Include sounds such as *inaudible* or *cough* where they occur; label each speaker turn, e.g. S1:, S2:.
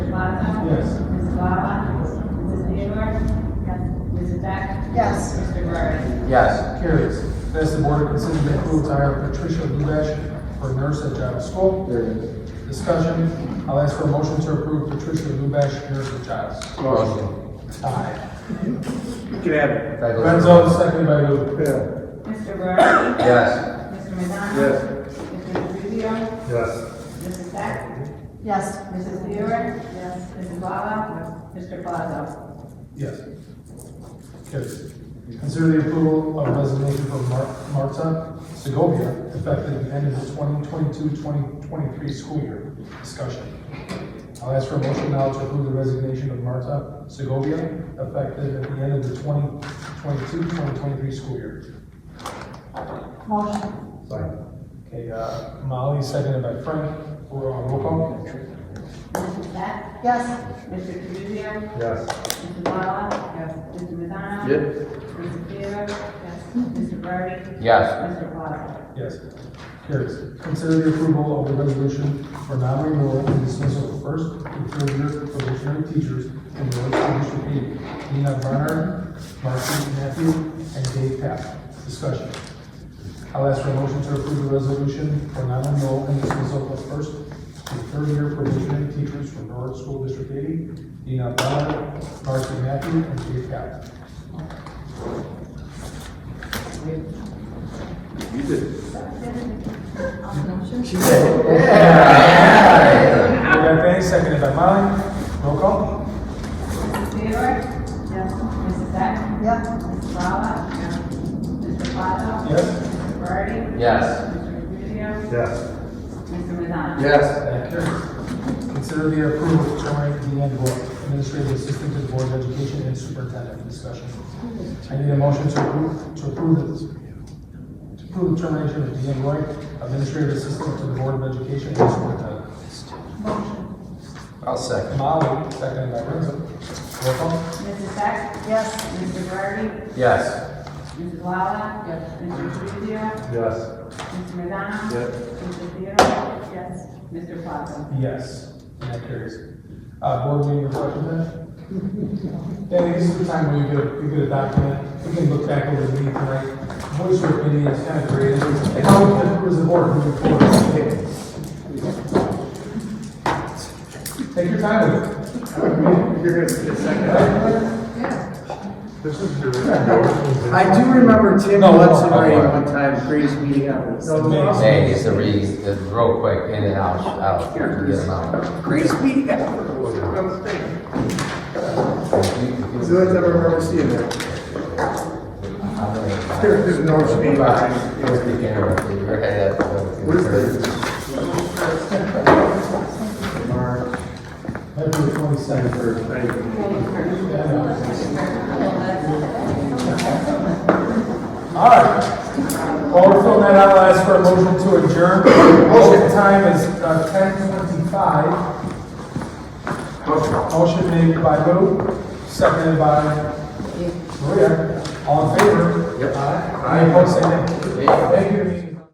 S1: Yes.
S2: Carries. Next, the board to consider the approval to hire Patricia Lubash for nurse at Giles School.
S1: There it is.
S2: Discussion, I'll ask for a motion to approve Patricia Lubash, nurse at Giles.
S1: Motion.
S2: Aye.
S3: Can I have it?
S2: Renzo, seconded by Lou.
S4: Mr. Guerrero.
S1: Yes.
S4: Mr. Madonna.
S3: Yes.
S4: Mr. Rubio.
S3: Yes.
S4: Mrs. Sack.
S5: Yes.
S4: Mrs. Mueller. Yes. Mrs. Blatman. Mr. Plaza.
S2: Yes. Carries. Consider the approval of resignation from Mar- Marta Segovia, effective the end of the 2022-2023 school year. Discussion. I'll ask for a motion now to approve the resignation of Marta Segovia, effective at the end of the 2022-2023 school year.
S5: Motion.
S1: Second.
S2: Okay, uh, Molly, seconded by Frank, for uh, roll call.
S4: Mrs. Sack.
S5: Yes.
S4: Mr. Rubio.
S1: Yes.
S4: Mrs. Blatman. Yes. Mr. Madonna.
S1: Yes.
S4: Mrs. Mueller. Yes. Mr. Guerrero.
S1: Yes.
S4: Mr. Plaza.
S2: Yes. Carries. Consider the approval of the resolution for non-renewal and dismissal of first and third year probationary teachers in the Village of District Eight. Nina Barnard, Marcy Matthew, and Dave Papp. Discussion. I'll ask for a motion to approve the resolution for non-renewal and dismissal of first and third year probationary teachers from Norwood School District Eight. Nina Barnard, Marcy Matthew, and Dave Papp.
S3: You did.
S5: Motion.
S2: We got Benny, seconded by Molly. Roll call.
S4: Mrs. Mueller. Yes. Mrs. Sack.
S5: Yep.
S4: Mrs. Blatman. Yes. Mr. Plaza.
S2: Yes.
S4: Mr. Guerrero.
S1: Yes.
S4: Mr. Rubio.
S3: Yes.
S4: Mr. Madonna.
S1: Yes.
S2: That carries. Consider the approval of terminating Deanne Gore, Administrative Assistant to the Board of Education and Superintendent. Discussion. I need a motion to approve, to approve this. To approve the termination of Deanne Roy, Administrative Assistant to the Board of Education and Superintendent.
S1: I'll second.
S2: Molly, seconded by Renzo. Roll call.
S4: Mrs. Sack.
S5: Yes.
S4: Mr. Guerrero.
S1: Yes.
S4: Mrs. Lala? Yes. Mr. Rubio?
S1: Yes.
S4: Mr. Madonna?
S3: Yes.
S4: Mr. Theodore? Yes. Mr. Plaza?
S2: Yes. And that carries. Uh, board meeting reflection time? Danny, this is the time where you get, a- you get a document, you can look back over the meeting tonight, voice your opinion, it's kind of great. And how we can, as a board, moving forward. Take your time with it.
S3: You're gonna get a second. This is your.
S6: I do remember Tim
S2: No, no,
S6: Hudson
S1: no,
S6: writing
S1: no.
S6: one time, greatest meeting ever.
S1: Hey, it's a read, it's real quick, in and out, out, get them out.
S6: Greatest meeting ever. It's the only
S1: There's
S6: time I remember seeing that. *laughs* There- There's no shame behind it. It was- What is this? Mark,
S2: February twenty-second.
S6: or, thank you.
S2: All right. While we're filling that out, I'll ask for a motion to adjourn. Motion time is uh, ten twenty-five. Motion made by Lou, seconded by Maria. All in favor? Aye. Any opposed, say nay. Thank you.